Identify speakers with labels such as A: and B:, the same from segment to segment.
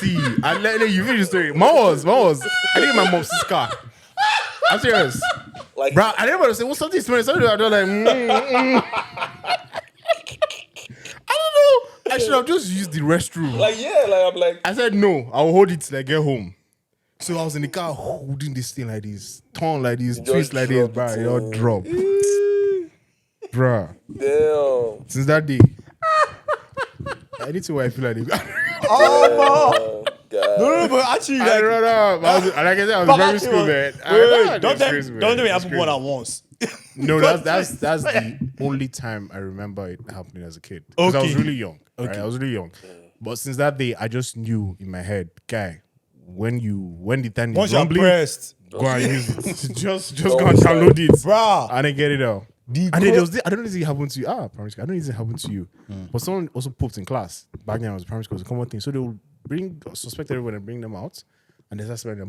A: See, I let, let you finish the story. Mine was, mine was. I think my mom's scar. I'm serious.
B: Like,
A: Bro, I didn't want to say, well, something smells. Something I don't like. Mm, mm. I don't know. I should have just used the restroom.
B: like yeah, like I'm like,
A: I said no. I'll hold it till I get home. So I was in the car holding this thing like this, torn like this, twist like this,
B: dropped
A: bro.
B: it.
A: It all drop, bro.
B: damn.
A: Since that day, I need to where I feel like. This.
B: Oh,
C: Oh,
B: God.
C: no. No, no, but actually,
A: I
C: like,
A: don't know. I was, like I said, I was
C: but
A: very
C: actually,
A: school, man.
C: wait,
A: I-
C: wait,
A: I-
C: don't
A: it's
C: tell
A: crazy,
C: me,
A: man.
C: don't tell me it
A: It's
C: happened more
A: crazy.
C: than once.
A: No, that's that's that's the only time I remember it happening as a kid. Because I was
C: Okay.
A: really young. right? I was really young. But since that day, I just knew in my head, guy, when you when the time
C: Once
A: is
C: you're
A: rumbling,
C: pressed,
A: go and use it. just just
B: Don't
A: go and
B: waste
A: download it
C: bruh.
A: and then get it out.
C: The
A: and then
C: gro-
A: there was thi- I don't know if it happened to you. Ah, primary school. I don't know if it happened to you.
C: Mm.
A: But someone also pooped in class. Back then, I was primary school. It was a common thing. So they would bring suspect everyone and bring them out, and they start smelling them.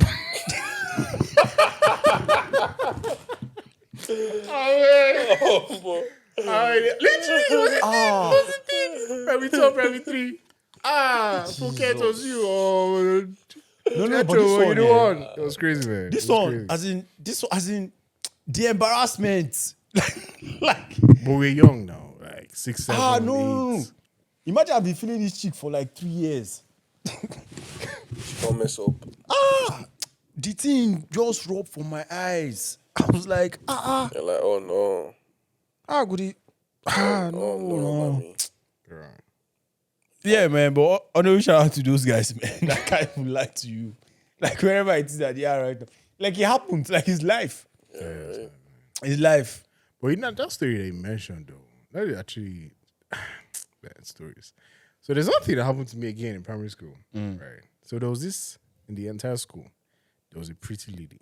B: Oh, boy.
A: Alright, literally, it was a
C: Ah.
A: thing. It was a thing. Primary two, primary three. Ah, Phuket was you. Oh,
C: No, no,
A: Metro,
C: but this
A: what you
C: one,
A: the
C: eh,
A: one. It was crazy, man.
C: this
A: It was
C: one,
A: crazy.
C: as in this one, as in the embarrassment, like
A: But we're young now, like six, seven,
C: ah no, no, no.
A: eight.
C: Imagine I've been feeling this chick for like three years.
B: Don't mess up.
C: Ah, the thing just rubbed from my eyes. I was like, ah, ah,
B: You're like, oh no.
C: ah, goody. Ah,
B: Oh
C: no,
B: no,
C: no.
B: mommy.
A: Girl.
C: Yeah, man, but honorary shout out to those guys, man. I can't even lie to you. Like wherever it is that they are right now. Like it happened, like it's life.
B: Yeah,
C: It's life.
A: But you know that story they mentioned though, that is actually bad stories. So there's one thing that happened to me again in primary school,
C: Mm.
A: right? So there was this in the entire school. There was a pretty lady.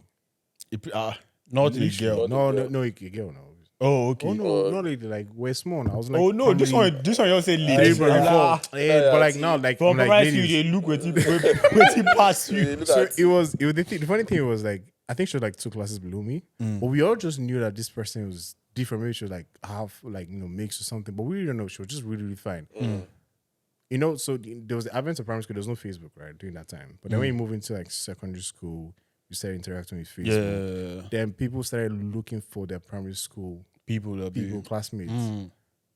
C: It, uh, not a girl.
A: No, no, no, a girl. No.
C: Oh, okay.
A: Oh no, not lady. Like we're small. I was like,
C: Oh no, this
A: probably
C: one, this one, you say
A: three,
C: lady.
A: probably
C: Like, ah,
A: four. Yeah, but like now, like,
C: From
A: I'm
C: like
A: like
C: you,
A: ladies.
C: they look with you, with you pass you.
B: look
A: So
B: at
A: it was. It was the, thing, the funny thing was like I think she was like two classes below me,
B: Mm.
A: but we all just knew that this person was different. Maybe she was like half like you know mixed or something, but we didn't know. She was just really really fine.
B: Mm.
A: You know, so the- there was the advent of primary school. There was no Facebook right during that time, but then
B: Mm.
A: when you move into like secondary school, you start interacting with Facebook. Then people started looking for their primary school
C: people that
A: people
B: Mm.
A: classmates.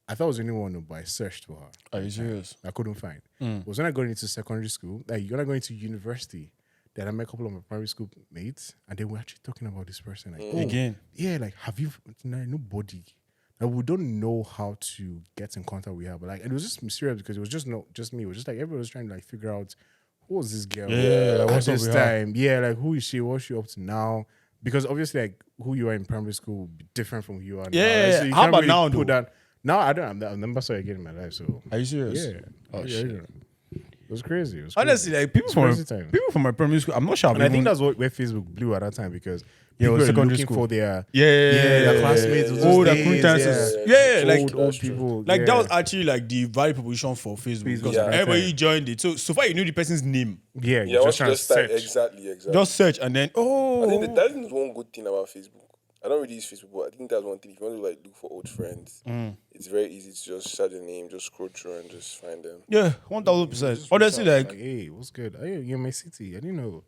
A: I thought it was the only one, but I searched for her.
C: Are you serious?
A: I couldn't find.
C: Mm.
A: Was when I got into secondary school, like when I got into university, that I met a couple of my primary school mates, and they were actually talking about this person. Like, oh,
C: Again.
A: yeah, like have you no- nobody? Like we don't know how to get in contact with her, but like it was just mysterious because it was just not just me. It was just like everyone was trying to like figure out who was this girl
C: Yeah,
A: at
C: like, what's up
A: this
C: with her?
A: time. Yeah, like who is she? What's she up to now? Because obviously, like who you are in primary school will be different from who you are. now.
C: Yeah,
A: Like, you
C: how
A: can't
C: about now,
A: put
C: though?
A: that- Now I don't. I've never saw her again in my life, so
C: Are you serious?
A: yeah. Oh, yeah, yeah. It was crazy. It was crazy.
C: Honestly, like people from
A: Crazy time.
C: people from my primary school, I'm not sure. I've
A: and I
C: even,
A: think that's what where Facebook blew at that time because
C: Yeah, it
A: people
C: was
A: were
C: secondary
A: looking
C: school.
A: for their
C: yeah, yeah, yeah,
A: yeah,
C: yeah,
A: their
C: yeah,
A: classmates.
C: yeah,
A: of
C: yeah. Oh,
A: those
C: the
A: days,
C: acquaintances.
A: yeah.
C: Yeah, yeah, like
A: old, old people.
C: like
A: yeah.
C: that was actually like the value proposition for Facebook because
A: Yeah.
C: everybody joined it. So so far you knew the person's name.
A: yeah,
B: yeah
A: you're
B: once
A: just
B: you
A: trying to
B: just start,
A: search.
B: exactly, exactly.
C: Just search and then oh
B: I think that, that is one good thing about Facebook. I don't really use Facebook, but I think that's one thing. If you want to like look for old friends,
A: Mm.
B: it's very easy to just search their name, just scroll through and just find them.
C: yeah, one thousand percent. Honestly,
A: Like,
C: like
A: hey, what's good? Hey, you're in my city. I didn't know.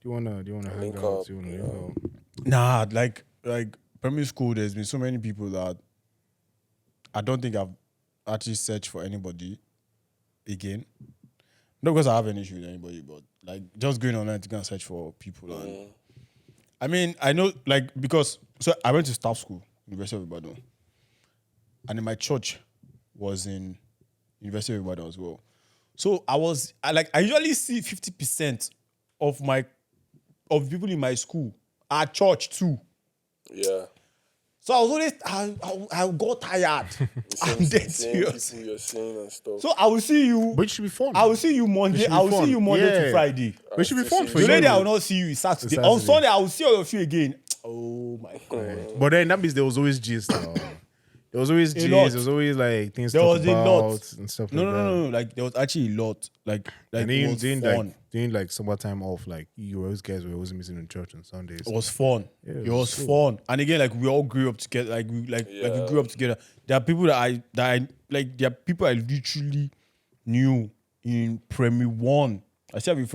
A: Do you wanna? Do you wanna hang
B: Link
A: out?
B: up,
A: Do you wanna?
B: uh, yeah.
A: link out?
C: nah, like like primary school, there's been so many people that I don't think I've actually searched for anybody again. Not because I have an issue with anybody, but like just going online to go and search for people and I mean, I know, like, because so I went to staff school, University of Ibadan, and then my church was in University of Ibadan as well. So I was, I like, I usually see fifty percent of my of people in my school at church too.
B: Yeah.
C: So I was always, I, I, I got tired.
B: The
C: I'm
B: same- same
C: dead serious.
B: People you're seeing and stuff.
C: So I will see you.
A: But it should be fun.
C: I will see you Monday.
A: should be
C: I will
A: fun.
C: see you Monday to
A: Yeah.
C: Friday.
A: But it should be fun for you.
C: Today I will not see you. It's Saturday. On
A: Saturday.
C: Sunday I will see all of you again. Oh my god.
A: But then that means there was always gist. now. There was always gist. There
C: lot.
A: was always like things.
C: There
A: to talk
C: was a lot.
A: about and stuff.
C: No,
A: like
C: no,
A: that.
C: no, no. Like there was actually a lot. Like, like
A: And
C: it
A: then
C: was
A: doing
C: fun.
A: like doing like summertime off, like you always guys were always missing in church on Sundays.
C: it was fun. it
A: it
C: was
A: was
C: fun. And again, like we all grew up together. Like we like like we
B: Yeah.
C: grew up together. There are people that I that I like. There are people I literally knew in primary one I still have a friend